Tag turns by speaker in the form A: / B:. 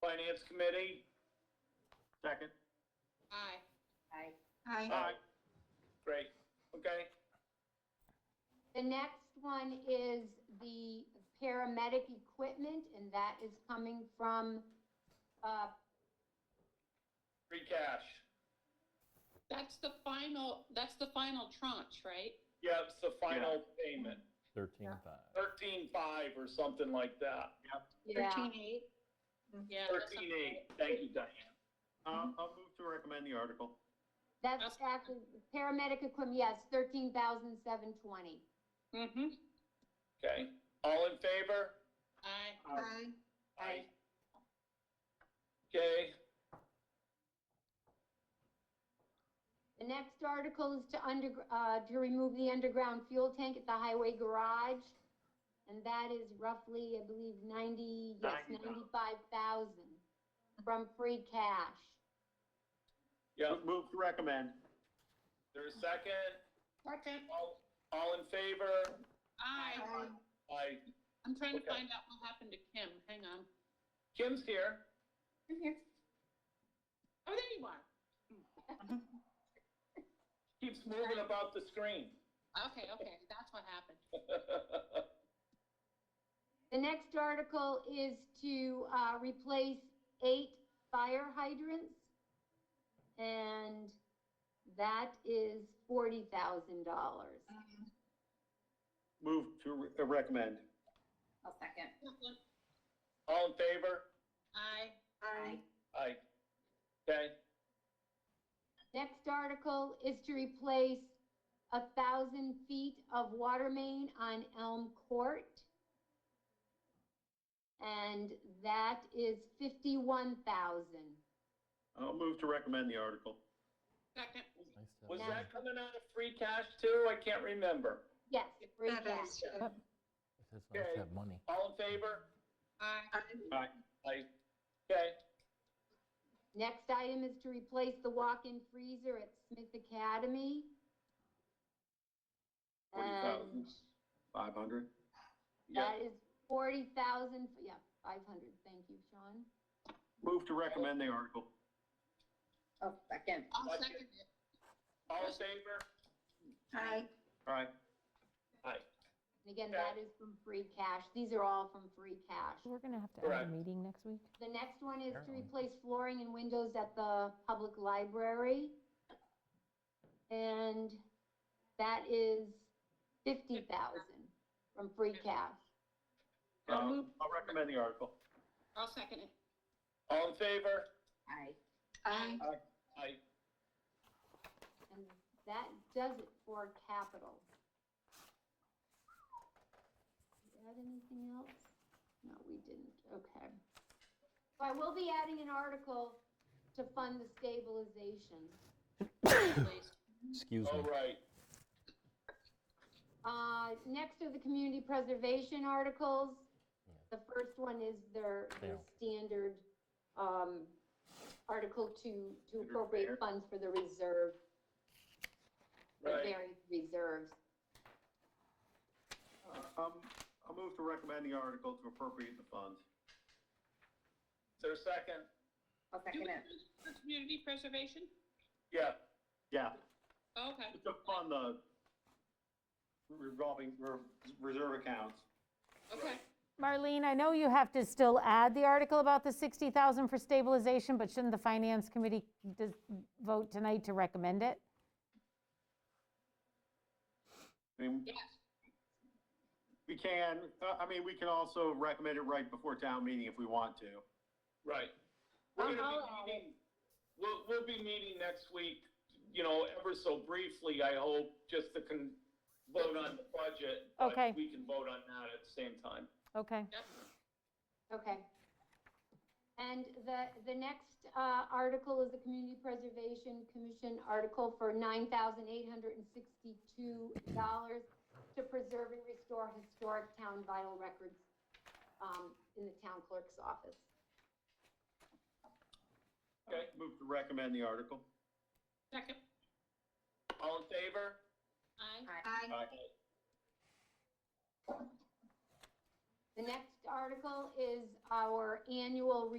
A: Finance Committee?
B: Second. Uh,
C: Aye.
D: Aye.
A: Mm-hmm.
E: Aye.
A: Great, okay.
D: The next one is the paramedic equipment, and that is coming from, uh,
A: Free cash.
C: That's the final, that's the final tranche, right?
A: Yeah, it's the final payment,
F: Thirteen five.
A: thirteen-five or something like that.
D: yeah,
C: eight? Yeah. that sounds
A: Thirteen-eight, thank you, Diane.
B: I'll, I'll move to recommend the article.
D: that's actually, paramedic equipment, yes, thirteen thousand seven twenty.
C: right. Mhm.
A: Okay, all in favor?
C: Aye.
E: Aye.
A: Aye. Okay,
D: The next article is to under, uh, to remove the underground fuel tank at the highway garage, and that is roughly, I believe, ninety, yes,
B: Ninety thousand.
D: ninety-five thousand from free cash.
A: yeah,
B: Move to recommend.
A: there's a second,
C: Second.
A: all, all in favor?
C: Aye.
E: Aye.
A: Aye.
C: I'm trying to
A: Okay.
C: find out what happened to Kim. Hang on.
A: Kim's here.
C: Oh, there you are.
A: Keeps moving about the screen.
C: Okay, okay, that's what happened.
D: The next article is to uh, replace eight fire hydrants, and that is $40,000.
B: Move to re- uh, recommend.
E: I'll second.
A: All in favor?
C: Aye.
E: Aye.
A: Aye. Okay,
D: Next article is to replace a 1,000 feet of water main on Elm Court, and that is 51,000.
B: I'll move to recommend the article.
C: Second.
F: Nice to
A: was
F: have
D: Yeah.
F: that.
A: that coming out of free cash too? I can't remember.
D: Yes, free
E: That
D: cash.
E: is,
F: It is
A: Yeah.
F: nice
A: Okay.
F: to have money.
A: All in favor?
C: Aye.
A: Aye. Okay,
D: Next item is to replace the walk-in freezer at Smith Academy. And
B: 40,000. 500.
A: yeah,
D: that is forty thousand, yeah, five hundred, thank you, Sean.
B: Move to recommend the article.
E: I'll second.
C: I'll
A: Second.
C: second it.
A: all in favor?
E: Aye.
B: All right.
D: And again, that is from free cash, these are all from free cash.
G: We're going to have to have
A: Correct.
G: a meeting next week.
D: The next one is to
F: Apparently.
D: replace flooring and windows at the public library. And that is fifty thousand from free cash.
A: Uh-huh. Um,
B: I'll I'll recommend the article.
C: I'll second it.
A: All in favor?
E: Aye.
C: Aye.
A: Aye.
D: And that does it for capital. Did we Add anything else? No, we didn't, okay. So I will be adding an article to fund the stabilization.
C: Please.
F: Excuse me.
A: All right,
D: Uh, next are the community preservation articles. The first one is their, their
F: Yeah.
D: standard, um, article to, to
B: Under fair.
D: appropriate funds for the reserve, the
A: right.
D: various reserves.
B: Uh, Um, I'll move to recommend the article to appropriate the funds.
A: Is there a second?
E: I'll
C: Do
E: second
C: we
E: it.
C: do this for community preservation?
A: Yeah,
B: Yeah,
C: Okay,
B: to fund the revolving re- reserve accounts.
C: okay.
G: Marlene, I know you have to still add the article about the 60,000 for stabilization, but shouldn't the Finance Committee dis- vote tonight to recommend it?
B: I mean,
C: Yes.
B: we can, uh, I mean, we can also recommend it right before town meeting if we want to.
A: right. We're gonna
D: I'll add
A: be
D: it.
A: meeting, we'll, we'll be meeting next week, you know, ever so briefly, I hope, just to con, vote on the budget. but
G: Okay.
A: We can vote on that at the same time.
G: Okay.
C: Yep.
D: Okay. And the, the next uh, article is the Community Preservation Commission article for $9,862 to preserve and restore historic town vital records um, in the town clerk's office.
A: Okay,
B: Move to recommend the article.
C: Second.
A: all in favor?
C: Aye.
E: Aye.
D: The next article is our annual